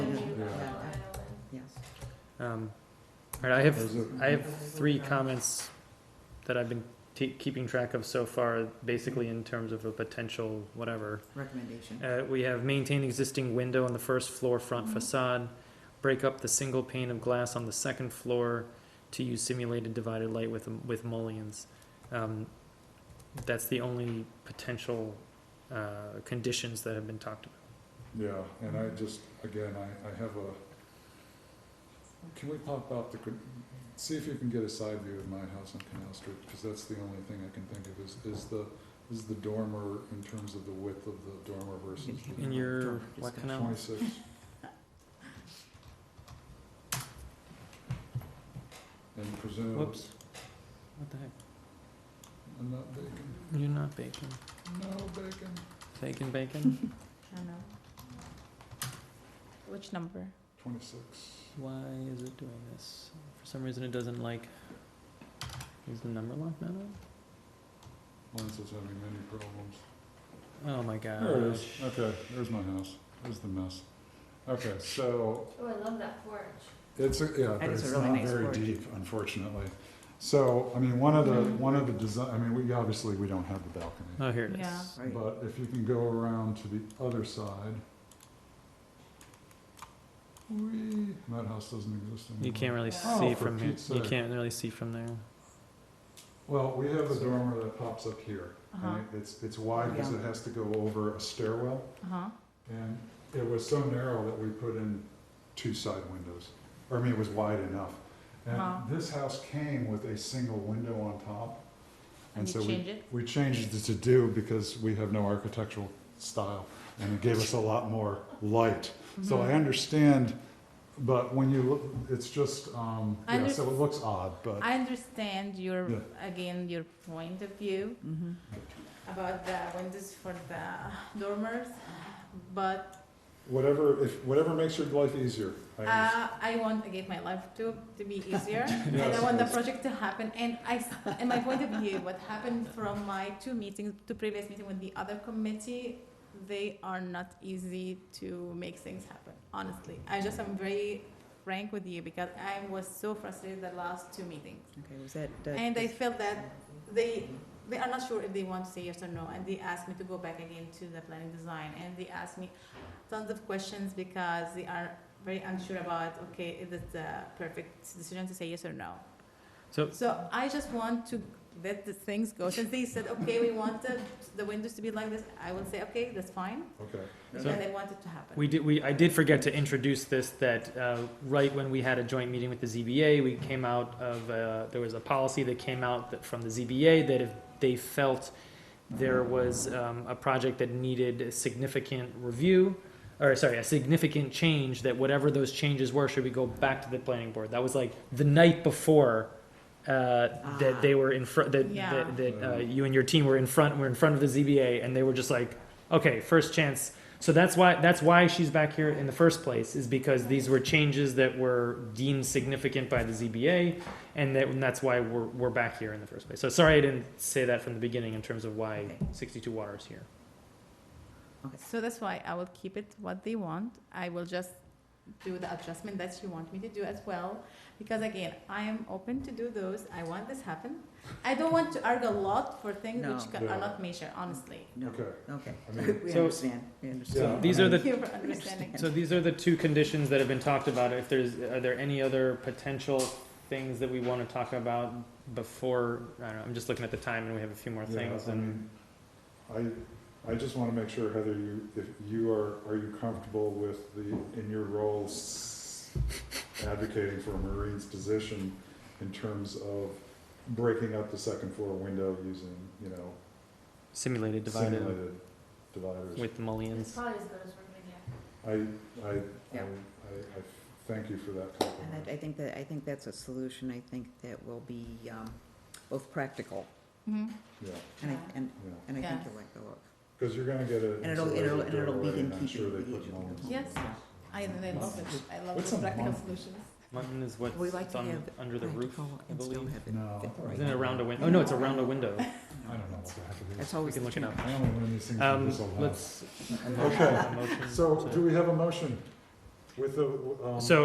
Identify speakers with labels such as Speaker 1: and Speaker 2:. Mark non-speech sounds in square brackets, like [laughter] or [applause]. Speaker 1: Um, All right, I have,
Speaker 2: Those are-
Speaker 1: I have three comments that I've been ta- keeping track of so far, basically in terms of a potential whatever.
Speaker 3: recommendation.
Speaker 1: Uh, we have maintain existing window on the first floor front
Speaker 3: Mhm.
Speaker 1: facade, break up the single pane of glass on the second floor to use simulated divided light with, with mullions. Um, That's the only potential, uh, conditions that have been talked about.
Speaker 2: Yeah, and I just, again, I, I have a, can we pop out the, con- see if you can get a side view of my house on Canal Street? Because that's the only thing I can think of is, is the, is the dormer in terms of the width of the dormer versus the.
Speaker 1: In your, what
Speaker 3: Discussion.
Speaker 1: canal?
Speaker 2: Twenty-six. And presume.
Speaker 1: Whoops. What the heck?
Speaker 2: I'm not bacon,
Speaker 1: You're not bacon.
Speaker 2: no bacon,
Speaker 1: Bacon, bacon?
Speaker 4: I don't know. Which number?
Speaker 2: twenty-six.
Speaker 1: Why is it doing this? For some reason, it doesn't like, is the number lock not on?
Speaker 2: Lance is having many problems.
Speaker 1: Oh my gosh.
Speaker 2: There it is. Uh, Okay, there's my house. There's the mess. Okay, so
Speaker 4: Oh, I love that porch.
Speaker 2: it's, a- yeah,
Speaker 3: That is
Speaker 2: it's
Speaker 3: a really
Speaker 2: not
Speaker 3: nice
Speaker 2: very
Speaker 3: porch.
Speaker 2: deep, unfortunately. So, I mean, one of the, one of the design, I mean, we, obviously, we don't have the balcony.
Speaker 1: Oh, here it is.
Speaker 4: Yeah.
Speaker 3: Right.
Speaker 2: But if you can go around to the other side. Whee! That house doesn't exist anymore.
Speaker 1: You can't really
Speaker 4: Oh,
Speaker 1: see
Speaker 2: for
Speaker 1: from here.
Speaker 2: Pete's
Speaker 1: You
Speaker 2: sake.
Speaker 1: can't really see from there.
Speaker 2: Well, we have a dormer that pops up here.
Speaker 4: Uh-huh.
Speaker 2: and It's, it's wide because
Speaker 3: Oh, Yeah.
Speaker 2: it has to go over a stairwell.
Speaker 4: Uh-huh.
Speaker 2: And it was so narrow that we put in two side windows. Or, I mean, it was wide enough.
Speaker 4: Wow.
Speaker 2: And this house came with a single window on top.
Speaker 4: And
Speaker 2: And so
Speaker 4: you
Speaker 2: we,
Speaker 4: change it?
Speaker 2: we changed it to do because we have no architectural style. And it gave us a lot more light. So I
Speaker 4: Mhm.
Speaker 2: understand, but when you look, it's just, um,
Speaker 4: I
Speaker 2: yeah, so it looks odd, but
Speaker 4: I understand your,
Speaker 2: Uh, Yeah. Mm-hmm.
Speaker 4: again, your point of view
Speaker 3: Mhm.
Speaker 4: about the windows for the dormers, but
Speaker 2: whatever, if, whatever makes your life easier. I understand.
Speaker 4: uh, I want, again, my life to, to be
Speaker 2: [laughs]
Speaker 4: easier. And I
Speaker 2: Yes,
Speaker 4: want the
Speaker 2: yes.
Speaker 4: project to happen, and I, s- and my point of view, what happened from my two meetings, two previous meeting with the other committee, they are not easy to make things happen, honestly. I just am very frank with you, because I was so frustrated the last two meetings.
Speaker 3: Okay, was that? uh, that-
Speaker 4: And I felt that they, they are not sure if they want to say yes or no, and they asked me to go back again to the planning design, and they asked me tons of questions because they are very unsure about, okay, is it the perfect decision to say yes or no?
Speaker 1: So,
Speaker 4: So I just want to let the things go, since they said, okay, we want the, the windows to be like this, I will say, okay, that's fine,
Speaker 2: Okay.
Speaker 4: because
Speaker 1: So-
Speaker 4: I want it to happen.
Speaker 1: We did, we, I did forget to introduce this, that, uh, right when we had a joint meeting with the ZBA, we came out of, uh, there was a policy that came out that, from the ZBA that if they felt there was, um, a project that needed a significant review, or sorry, a significant change, that whatever those changes were, should we go back to the planning board? That was like the night before, uh,
Speaker 3: Ah.
Speaker 1: that they were in front, that,
Speaker 4: Yeah.
Speaker 1: that, that, uh, you and your team were in front, were in front of the ZBA, and they were just like, okay, first chance, so that's why that's why she's back here in the first place is because these were changes that were deemed significant by the ZBA, and, that, and that's why we're, we're back here in the first place. So sorry I didn't say that from the beginning in terms of why
Speaker 4: Okay.
Speaker 1: 62 Water is here.
Speaker 4: So that's why I will keep it what they want. I will just do the adjustment that you want me to do as well. Because again, I am open to do those. I want this happen. I don't want to argue a lot for things
Speaker 3: No.
Speaker 4: which ca- are
Speaker 2: Yeah.
Speaker 4: not measured, honestly.
Speaker 3: No,
Speaker 2: Okay.
Speaker 3: okay.
Speaker 2: I mean-
Speaker 3: We
Speaker 1: So-
Speaker 3: understand, we
Speaker 2: Yeah, I
Speaker 1: So
Speaker 3: understand.
Speaker 1: these are
Speaker 2: mean-
Speaker 4: [laughs]
Speaker 1: the
Speaker 4: Thank you for understanding.
Speaker 1: so these are the two conditions that have been talked about. If there's are there any other potential things that we want to talk about before I don't know, I'm just looking at the time and we have a few more
Speaker 2: Yeah, um,
Speaker 1: things
Speaker 2: I
Speaker 1: and
Speaker 2: mean, I, I just wanna make sure, Heather, you, if you are, are you comfortable with the, in your role s- advocating for a Marine's position in terms of breaking up the second floor window using, you know,
Speaker 1: simulated divided
Speaker 2: simulated dividers?
Speaker 1: with mullions.
Speaker 4: probably as good as we're gonna get.
Speaker 2: I, I, I,
Speaker 3: Yeah.
Speaker 2: I, I thank you for that
Speaker 3: And
Speaker 2: compliment.
Speaker 3: I I think that, I think that's a solution, I think that will be um, both practical,
Speaker 4: Mm-hmm.
Speaker 2: Yeah,
Speaker 3: and I, and,
Speaker 2: yeah,
Speaker 3: and I think
Speaker 4: Yeah.
Speaker 3: you'll like the look.
Speaker 2: cause you're gonna get a.
Speaker 3: And it'll- it'll- and it'll be in
Speaker 2: I'm sure
Speaker 3: keeping with
Speaker 2: they put
Speaker 3: each other.
Speaker 2: mullions.
Speaker 4: Yes. I, I love it. I love
Speaker 2: What's
Speaker 4: the
Speaker 2: a
Speaker 4: practical
Speaker 2: month?
Speaker 4: solutions.
Speaker 1: Mullion is what's
Speaker 3: We like to
Speaker 1: on-
Speaker 3: have
Speaker 1: under the roof,
Speaker 3: Practical
Speaker 1: I
Speaker 3: and still
Speaker 1: believe.
Speaker 3: have it
Speaker 2: No,
Speaker 3: fit the right
Speaker 1: Isn't it around a window?
Speaker 3: amount.
Speaker 1: Oh, no, it's around a window.
Speaker 2: I don't know what the heck it is.
Speaker 3: That's always
Speaker 1: We can
Speaker 3: the challenge.
Speaker 1: look it up.
Speaker 2: I only learn these things from
Speaker 1: Um,
Speaker 2: this old house.
Speaker 1: let's.
Speaker 2: [laughs] Okay, So do we have a motion with the, um?
Speaker 1: So